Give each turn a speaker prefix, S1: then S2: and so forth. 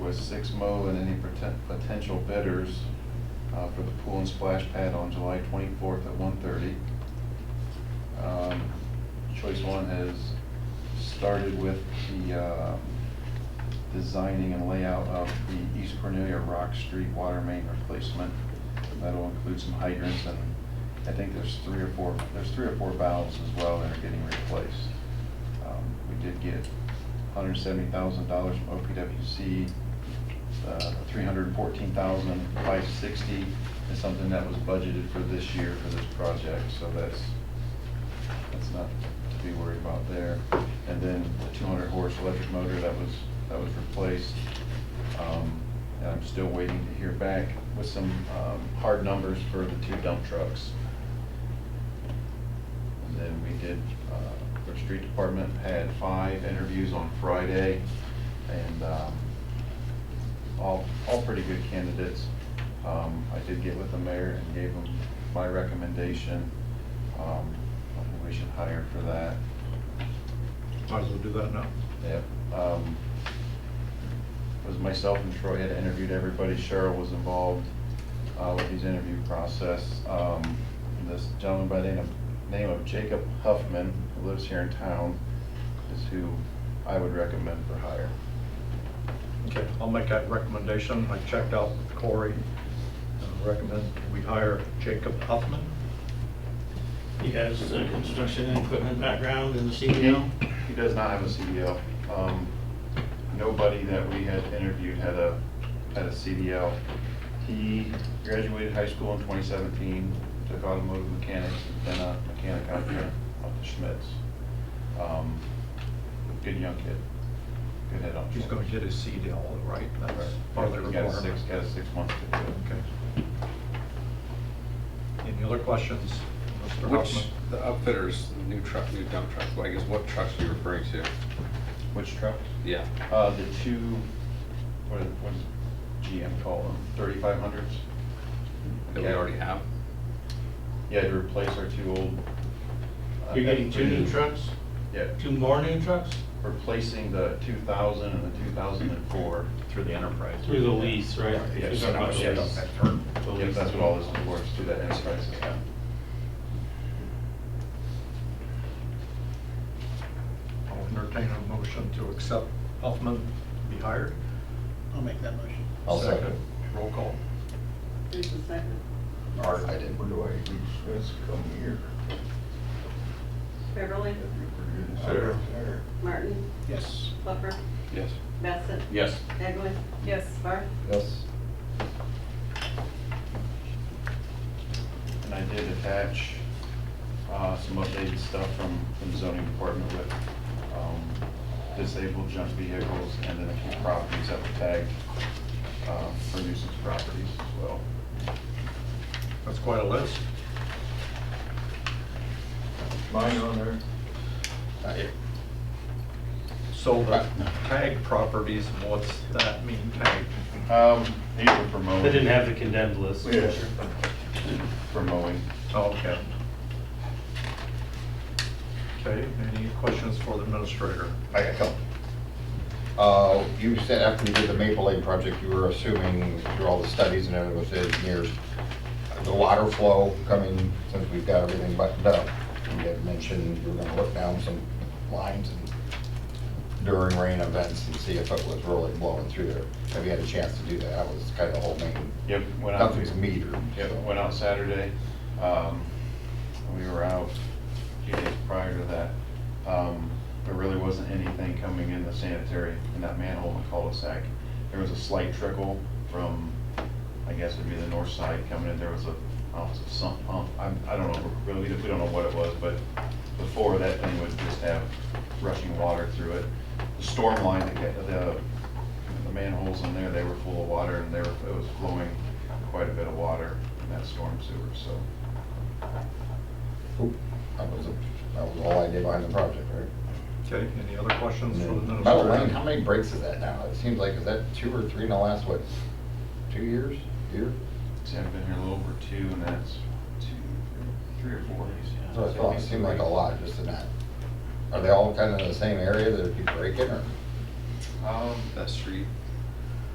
S1: with Sixmo and any poten- potential bidders uh, for the pool and splash pad on July 24th at 1:30. Um, Choice one has started with the uh, designing and layout of the East Cornelia Rock Street water main replacement. That'll include some hydrants and I think there's three or four, there's three or four valves as well that are getting replaced. Um, We did get hundred seventy thousand dollars from OPWC, three hundred fourteen thousand five sixty is something that was budgeted for this year for this project, so that's, that's not to be worried about there. And then the two hundred horse electric motor that was, that was replaced. Um, And I'm still waiting to hear back with some um, hard numbers for the two dump trucks. And then we did, uh, our street department had five interviews on Friday, and um, all, all pretty good candidates. Um, I did get with the mayor and gave him my recommendation, um, on who we should hire for that.
S2: Might as well do that now.
S1: Yep. um, It was myself and Troy had interviewed everybody. Cheryl was involved uh, with his interview process. Um, This gentleman by the name of- name of Jacob Huffman, who lives here in town, is who I would recommend for hire.
S2: Okay, I'll make that recommendation. I checked out with Corey. Uh, Recommend we hire Jacob Huffman.
S3: He has a construction and equipment background in the CDL.
S1: He does not have a CDL. Um, Nobody that we had interviewed had a, had a CDL. He graduated high school in 2017, took automotive mechanics, then a mechanic out here off the Schmitz. Um, Good young kid. Good head on.
S2: He's going to get his CDL, right? That's part of the
S1: He's got a six,
S2: requirement.
S1: got a six month to do it.
S2: Okay. Any other questions, Mr.
S4: Which,
S2: Huffman?
S4: the upfitters, new truck, new dump truck, well, I guess what trucks are you referring to?
S1: Which truck?
S4: Yeah.
S1: Uh, The two, what is- what does GM call them? 3500s?
S4: That we
S1: Yeah.
S4: already have?
S1: Yeah, to replace our two old. uh,
S3: You're getting two new trucks,
S1: Yeah,
S3: two more new trucks?
S1: replacing the two thousand and the two thousand and four.
S5: Through the enterprise.
S3: Through the lease, right?
S1: Yeah,
S3: You're
S1: so
S3: talking about
S1: now it's-
S3: lease. The
S1: Yep,
S3: lease.
S1: that's what all this is for, is through that enterprise account.
S2: I'll entertain a motion to accept Huffman to be hired.
S6: I'll make that motion.
S7: I'll second.
S2: Roll call.
S6: Who's the second?
S7: Or I didn't, where do I, let's come here.
S8: Beverly,
S7: Sarah.
S8: Martin,
S6: Yes.
S8: Flucker,
S4: Yes.
S8: Bassett,
S7: Yes.
S8: Eglin. Yes. Barth.
S7: Yes.
S1: And I did attach uh, some updated stuff from from the zoning department with um, disabled junk vehicles and then a few properties that were tagged uh, for nuisance properties as well.
S2: That's quite a list.
S7: Mine on there.
S2: So the tag properties, what's that mean, tag?
S1: Um, These were for mowing.
S5: They didn't have the condemned list.
S7: Yeah.
S1: For mowing.
S2: Oh, okay. Okay, any questions for the administrator?
S7: I got a couple. Uh, you said after you did the Maple Lake project, you were assuming through all the studies and everything with the engineers, the water flow coming, since we've got everything buttoned up. You had mentioned you were gonna look down some lines and during rain events and see if it was really blowing through there. Have you had a chance to do that? That was kind of the whole main,
S1: Yep, went out.
S7: nothing's metered.
S1: Yep,
S7: so.
S1: went out Saturday. Um, We were out a few days prior to that. Um, There really wasn't anything coming in the sanitary, in that manhole in the cul-de-sac. There was a slight trickle from, I guess it'd be the north side coming in. There was a, I don't know, it's a sump pump. I'm- I don't know, really, we don't know what it was, but before that thing would just have rushing water through it. The storm line, that got- the the manholes in there, they were full of water and there, it was flowing quite a bit of water in that storm sewer, so.
S7: Oop, That was, that was all I did behind the project, right?
S2: Okay, any other questions for the administrator?
S7: By the way, how many breaks is that now? It seems like, is that two or three in the last, what, two years, year?
S1: See, I've been here a little over two and that's two, three or four days. yeah.
S7: So I thought it seemed like a lot, just in that. Are they all kind of in the same area that it'd be breaking, or?
S1: Um,
S4: That street,